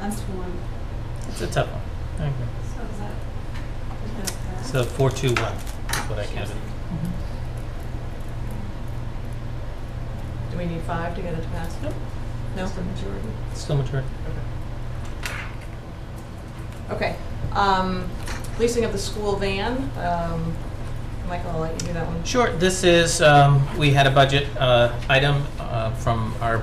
That's one. It's a tough one. I agree. So is that? is that So four, two, one is what I counted. Do we need five to get it to pass? Nope. No? Just a majority. Still mature. Okay, um, leasing of the school van, um, Michael, I'll let you do that one. Sure, this is, um, we had a budget, uh, item, uh, from our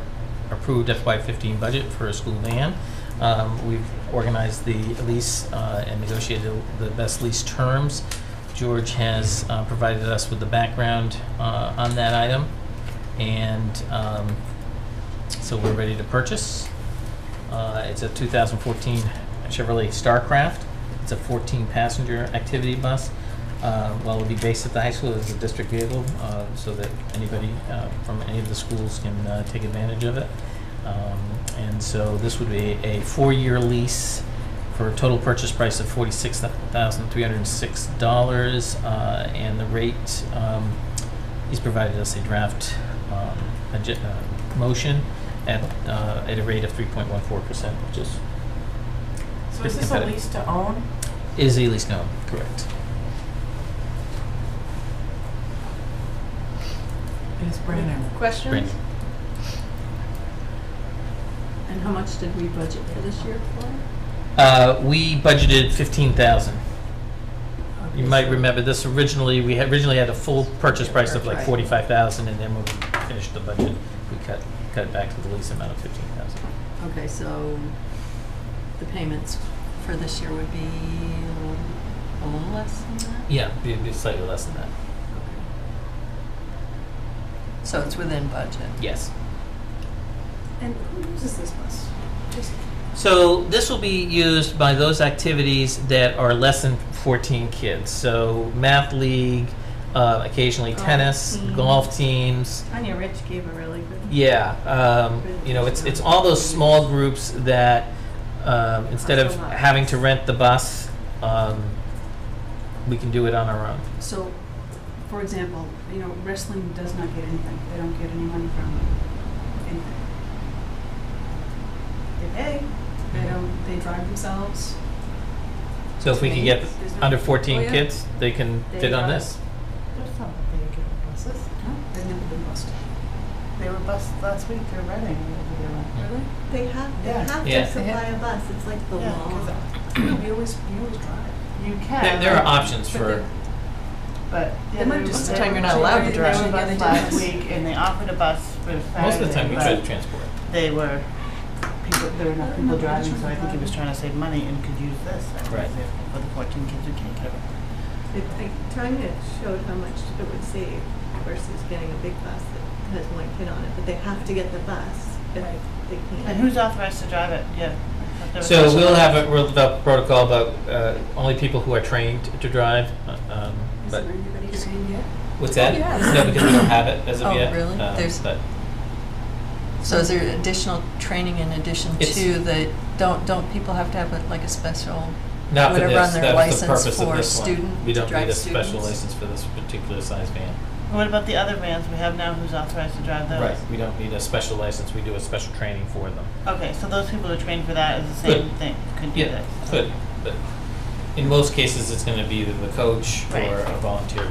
approved FY fifteen budget for a school van. Um, we've organized the lease, uh, and negotiated the best lease terms. George has, uh, provided us with the background, uh, on that item. And, um, so we're ready to purchase. Uh, it's a 2014 Chevrolet Starcraft. It's a 14-passenger activity bus. Uh, While it'll be based at the high school, it's a district vehicle, uh, so that anybody uh, from any of the schools can uh, take advantage of it. Um, And so this would be a four-year lease for a total purchase price of $46,306. uh, And the rate, um, he's provided us a draft um, agen- uh, motion at, uh, at a rate of 3.14%, which is So is this a Competitive. lease to own? Is a lease known, correct. It's brand new. Questions? Brandon? correct? And how much did we budget for this year for? Uh, we budgeted fifteen thousand. You might remember this originally, we had- originally had a full purchase price of like Right. forty-five thousand, and then when we finished the budget, we cut, cut it back to the lease amount of fifteen thousand. Okay, so the payments for this year would be a little, a little less than that? Yeah, it'd be slightly less than that. So it's within budget? Yes. And who uses this bus? Just So this will be used by those activities that are less than 14 kids. So math league, uh, occasionally Golf tennis, team. golf teams. Tanya Rich gave a really good. Yeah, um, you know, it's it's all those small groups that um, instead of having to rent the bus, um, we can do it on our own. So, for example, you know, wrestling does not get anything. They don't get any money from anything. They pay, they don't, they drive themselves. So if we can get There's no- under 14 Oh, yeah. kids, they can They fit on are- this. There's some big buses. No, they've never been busted. They were bus last week, they're running. whatever they were. Really? They have, they Yeah. have Yeah. to supply a bus, it's like the Yeah, law. 'cause You always, you always drive. You There, can. there are options but for. they- But. yeah, They might there just was- say there you're were not two- allowed to there drive. was a Yeah, they bus do Last this. week, and they offered a bus for Saturday. Most of the time, we try to but transport. They were, people, there were not No, people they're driving, trying so to I think he drive. was trying to save money and could use this. as an Right. example For the fourteen kids who can't get it. It- I- Tanya showed how much it would save versus getting a big bus that has one kid on it, but they have to get the bus if Right. they can. And who's authorized to drive it? Yeah. There was So also- we'll have a, we'll develop a protocol about uh, only people who are trained to drive, uh, um, Is but, there anybody saying yet? what's that? No, because we don't have it as of Oh, yet. really? um, There's- But, So is there additional training in addition It's- to the, don't, don't people have to have a- like a special, not for Whatever this, on their that was the license purpose of for this one. student- We to don't drive need a special students. license for this particular size van. What about the other vans we have now? Who's authorized to drive those? We don't need a special license, we do a special training for them. Okay, so those people who are trained for that is the same Good. thing, could do Yeah, that. could, but in most cases, it's gonna be either the coach Right. or a volunteer.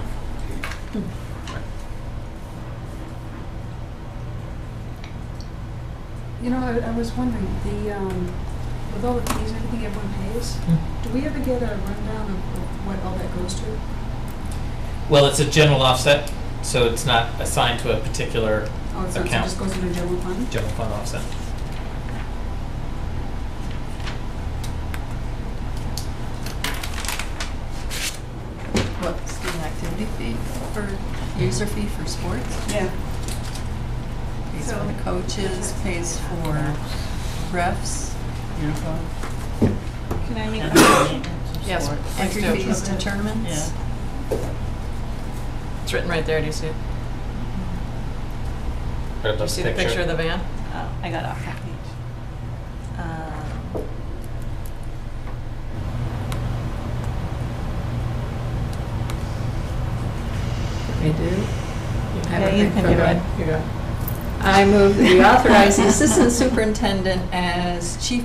You know, I, I was wondering, the, um, with all the fees and everything everyone pays, do we ever get a rundown of of what all that goes to? Well, it's a general offset, so it's not assigned to a particular Oh, it's not, so it account, just goes into general fund? general fund offset. what, student activity fee for, user fee for sports? Yeah. Pays for So- the coaches, pays for refs, Uniform. Can I make and a maintenance of Yes. sport. entry do it. fees to tournaments. Yeah. It's written right there, do you see it? Do Do you see the picture of the van? Oh, I got off that page. Um, I do. Have Yeah, you everything can for do that. it. Here you go. I move that we authorize the assistant superintendent as chief